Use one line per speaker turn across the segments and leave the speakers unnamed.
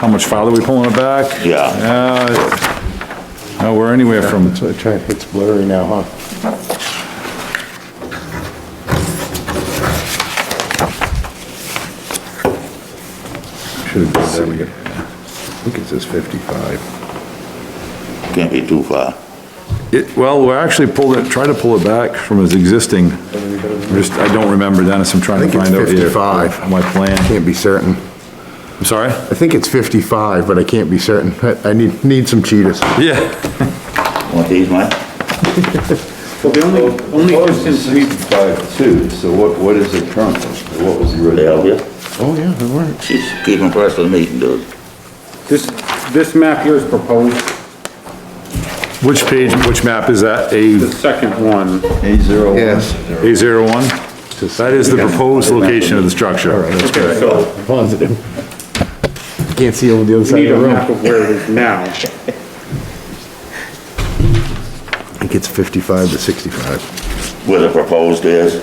How much farther we pulling it back?
Yeah.
Yeah. No, we're anywhere from,
So it try- it's blurry now, huh? Should have been there, we got, I think it says 55.
Can't be too far.
it, well, we're actually pulled it, try to pull it back from its existing. I'm Just, I don't remember, Dennis, I'm trying
I
to
think it's
find out here.
55.
My plan.
Can't be certain.
I'm sorry?
I think it's 55, but I can't be certain. I- I need, need some cheetahs.
Yeah.
Want these, Mike?
Well, the only, only distance we,
Five two, so what, what is it currently? What was the
They help
original?
you?
Oh, yeah, they were.
She's keeping press for the meeting, dude.
this, this map here is proposed,
Which page, which map is that? A,
the second one.
A zero one?
Yes.
A zero one? That is the proposed location of the structure. That's
Okay, so
Positive. Can't see over the other
we
side
need
of
a
the room.
map of where it is now.
I think it's 55 to 65.
Where the proposed is,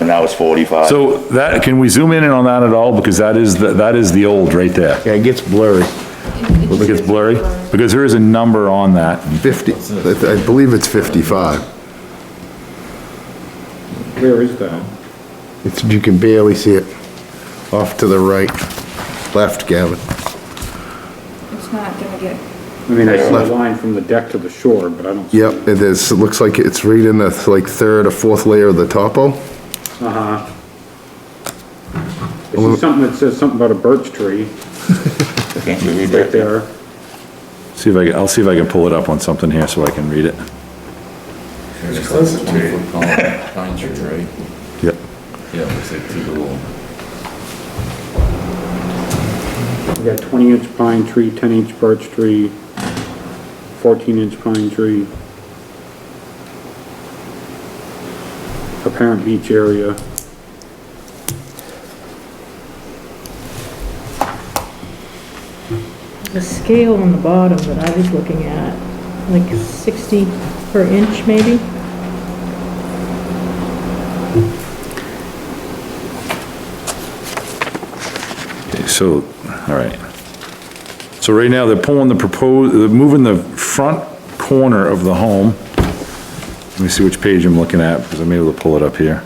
and now it's forty-five.
So that, can we zoom in on that at all? Because that is, the- that is the old right there.
Yeah, it gets blurry.
It gets blurry, because there is a number on that.
50, I I believe it's 55.
Where is that?
It's, you can barely see it. Off to the right, left, Gavin.
It's not gonna get,
I mean, I see the line from the deck to the shore, but I don't. see-
Yep, it is, it looks like it's right in the, like, third or fourth layer of the topo.
Uh-huh. I see something that says something about a birch tree
Can't you read
right
that?
there.
See if I, can- I'll see if I can pull it up on something here so I can read it.
It's a twenty-foot column, pine tree, right?
Yep.
Yeah, it looks like two little,
We got twenty inch pine tree, ten inch birch tree, fourteen inch pine tree. Apparent beach area.
The scale on the bottom that I was looking at, like 60 per inch maybe?
So, all right. So right now, they're pulling the proposed, they're moving the front corner of the home. Let me see which page I'm looking at, because I'm able to pull it up here.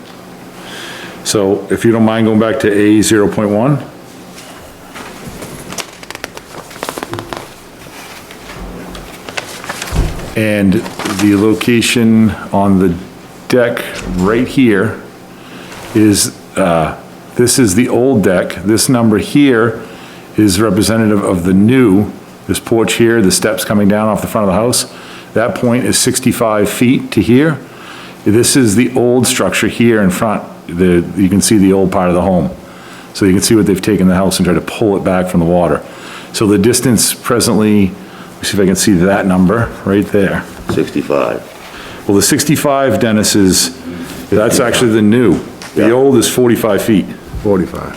So if you don't mind going back to A zero point one? And the location on the deck right here is, uh, this is the old deck. This number here is representative of the new, this porch here, the steps coming down off the front of the house. That point is 65 feet to here. This is the old structure here in front. The, you can see the old part of the home. So you can see what they've taken the house and tried to pull it back from the water. So the distance presently, let me see if I can see that number right there.
Sixty-five.
Well, the 65, Dennis, is, that's actually the new. The
Yeah.
old is 45 feet.
45.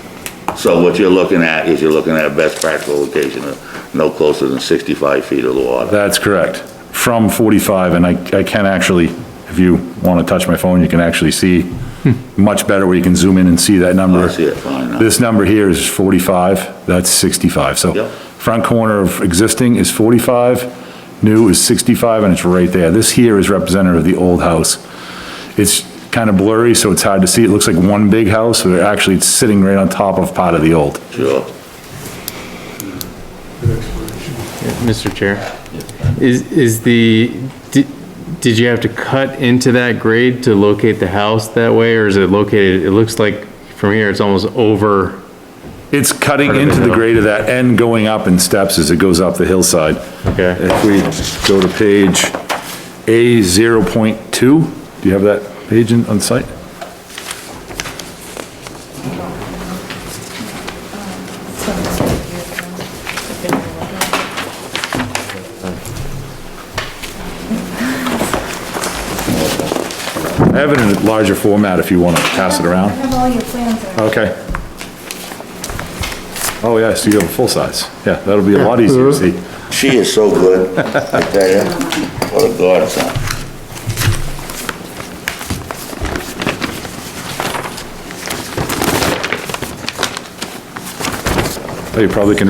So what you're looking at is you're looking at best practical location of no closer than sixty-five feet of the water.
That's correct. From 45, and I, I can actually, if you want to touch my phone, you can actually see much better where you can zoom in and see that number.
Hmm. I see it fine now.
This number here is 45, that's 65. So
Yep.
front corner of existing is 45, new is 65, and it's right there. This here is representative of the old house. It's kind of blurry, so it's hard to see. It looks like one big house, but actually it's sitting right on top of part of the old.
Sure.
Mr. Chair, is, is the, di- did you have to cut into that grade to locate the house that way, or is it located, it looks like from here, it's almost over,
It's cutting
Part of the
into the
hill.
grade of that and going up in steps as it goes up the hillside.
Okay.
If we go to page A zero point two, do you have that page in, on site? I have it in a larger format if you want to pass it
I
around.
have all your plans there.
Okay. Oh, yeah, so you have a full size. Yeah, that'll be a lot easier to see.
She is so good, I tell you. What a godsend.
You probably can